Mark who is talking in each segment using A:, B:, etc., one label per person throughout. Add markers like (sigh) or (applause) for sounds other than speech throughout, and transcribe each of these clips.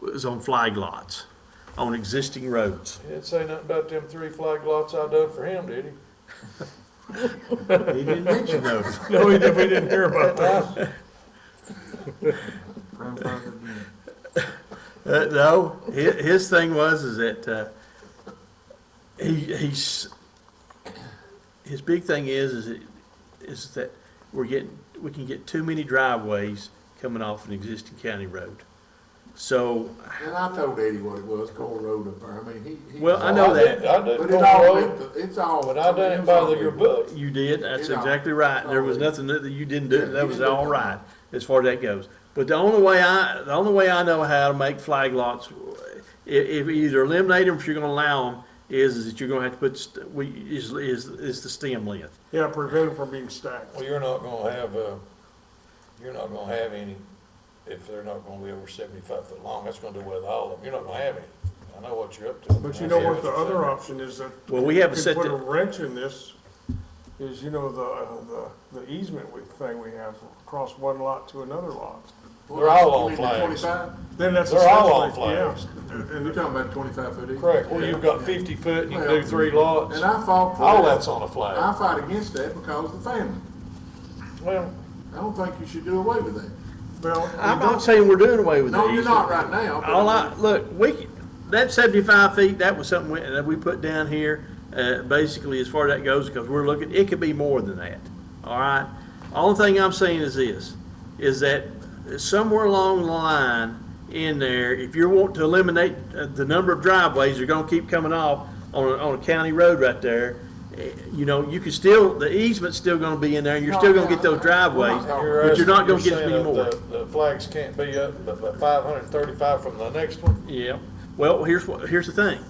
A: was on flag lots, on existing roads. (laughs)
B: He didn't say nothing about them three flag lots I done for him, did he?
A: He didn't mention those.
B: No, we didn't, we didn't hear (laughs) about that.
C: (laughs)
A: Uh, no, his, his thing was is that, uh, he, he's, his big thing is, is it, is that we're getting, we can get too many driveways coming off an existing county road. So,
C: And I told Eddie what it was, Cole Road up there, I mean, he. he-
A: Well, I know that.
B: I did
C: But it's
B: Cole
C: all,
B: Road,
C: linked- it's all.
B: but I done it by the- your book.
A: You did, that's
C: Did I?
A: exactly right, there was
C: Oh, yeah.
A: nothing that you didn't do,
C: Yeah,
A: that
C: you
A: was
C: didn't do
A: all
C: that.
A: right, as far as that goes. But the only way I, the only way I know how to make flag lots, i- if either eliminate them, if you're gonna allow them, is, is that you're gonna have to put, st- we, is, is, is the stem length.
D: Yeah, prevent from being stacked.
B: well, you're not gonna have, uh, you're not gonna have any, if they're not gonna be over seventy-five foot long, that's gonna do away with all of them, you're not gonna have any. I know what you're up to.
D: But you know what the other option is that.
A: Well, we haven't
D: could
A: set
D: Put a
A: the-
D: wrench in this, is you know, the, uh, the, the easement we, thing we have across one lot to another lot.
B: They're all on flags.
C: Twenty-five,
D: Then that's.
B: They're all on
D: essentially- yeah.
C: and you're talking about twenty-five foot each.
B: Correct, well, you've got fifty foot, and you can do
C: Well,
B: three lots,
C: And I fought for that.
B: all that's on a flag.
C: I fight against that because of the family.
B: Well,
C: I don't think you should do away with that.
D: Well,
A: I'm not saying we're doing away with these.
C: No, you're not right now. but
A: All I, look, we, c- that seventy-five feet, that was something we, that we put down here, uh, basically as far as that goes, because we're looking, it could be more than that, all right? Only thing I'm saying is this, is that somewhere along the line in there, if you want to eliminate uh, the number of driveways that are gonna keep coming off on, a- on a county road right there, eh, you know, you can still, the easement's still gonna be in there, you're still gonna get those driveways, but you're not gonna get as many
B: saying
A: more.
B: that The the flags can't be up, but, but five hundred and thirty-five from the next one?
A: Yeah, well, here's what, here's the thing.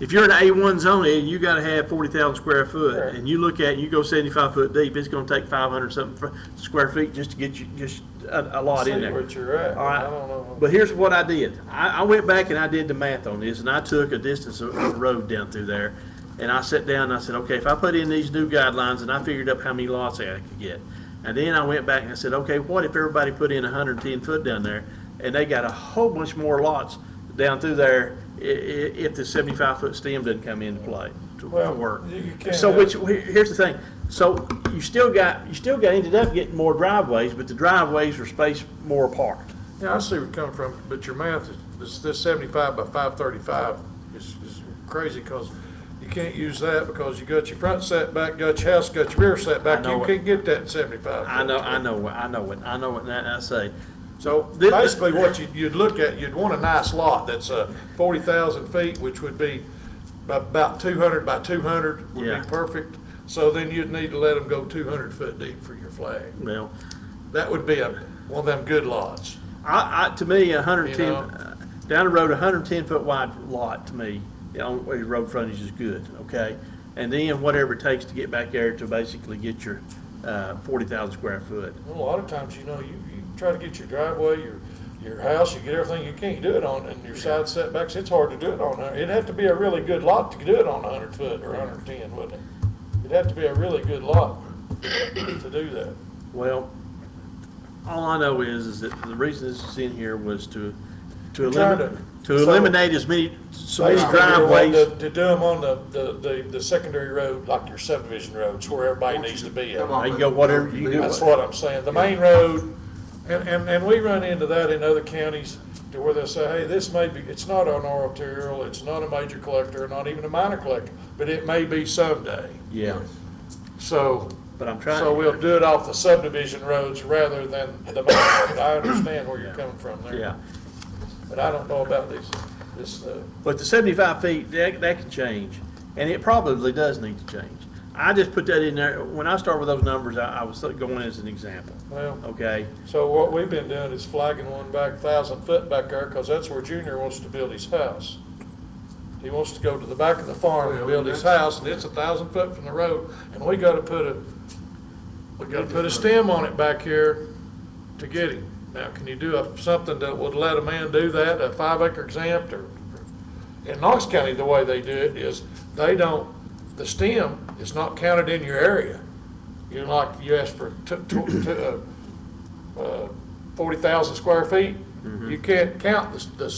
A: If you're in an A one zone and you gotta have forty thousand square
B: Sure.
A: foot, and you look at, it, you go seventy-five foot deep, it's gonna take five hundred something fr- square feet just to get you, just a, a lot in
B: See
A: there.
B: what you're at,
A: All right.
B: I don't know.
A: But here's what I did. I, I went back and I did the math on this, and I took a distance of of road down through there. And I sat down and I said, okay, if I put in these new guidelines, and I figured up how many lots I could get. And then I went back and I said, okay, what if everybody put in hundred and ten foot down there, and they got a whole bunch more lots down through there i- i- if the seventy-five foot stem doesn't come into play to to
B: Well,
A: work.
B: you- you can't
A: So
B: have-
A: which, here- here's the thing, so you still got, you still got, ended up getting more driveways, but the driveways were spaced more apart.
B: Yeah, I see where you're coming from, but your math is, this, this seventy-five by five thirty-five is, is crazy, cause you can't use that, because you got your front setback, got your house, got your rear setback,
A: know
B: you
A: it.
B: can't get that seventy-five.
A: I know, I know, what- I know what, I know what that I say.
B: So
A: Thi-
B: basically, what you'd, you'd look at, you'd want a nice lot that's, uh, forty thousand feet, which would be about two hundred by two hundred would
A: Yeah.
B: be perfect. So then you'd need to let them go two hundred foot deep for your flag.
A: Well,
B: That would be a, one of them good lots.
A: I, I, to me, a hundred and
B: You
A: ten,
B: know.
A: uh, down the road, a hundred and ten foot wide lot to me, you know, where the road frontage is good, okay? And then whatever it takes to get back there to basically get your, uh, forty thousand square foot.
B: Well, A lot of times, you know, you, you try to get your driveway, your, your house, you get everything, you can't do it on, and your side setbacks, it's hard to do it on, a- it'd have to be a really good lot to do it on a hundred foot or hundred and ten, wouldn't it? It'd have to be a really good lot to do that.
A: Well, all I know is, is that the reason this is in here was to, to
B: We're trying
A: eliminate, to
B: to- so-
A: eliminate as many, so many
B: Basically, we want
A: driveways.
B: To to do them on the, the, the, the secondary road, like your subdivision roads, where everybody needs to be at.
C: Come on,
A: There you go, whatever you do.
B: That's what I'm saying, the main road, and, and, and we run into that in other counties to where they'll say, hey, this may be, it's not an arterial, it's not a major collector, not even a minor collector, but it may be someday.
A: Yeah,
B: So,
A: but I'm trying.
B: so we'll do it off the subdivision roads rather than the main road. I understand where you're coming from there,
A: Yeah.
B: but I don't know about these, this, uh,
A: But the seventy-five feet, that, that can change, and it probably does need to change. I just put that in there, when I start with those numbers, I, I was going as an example,
B: well.
A: okay?
B: So what we've been doing is flagging one back, thousand foot back there, because that's where Junior wants to build his house. He wants to go to the back of the farm and build his house, and it's a thousand foot from the road, and we gotta put a, we gotta put a stem on it back here to get him. Now, can you do a- something that would let a man do that, a five acre exempt, or, in Knox County, the way they do it is, they don't, the stem is not counted in your area. You're like, you ask for two, two, two, uh, uh, 40,000 square feet, you can't count the, the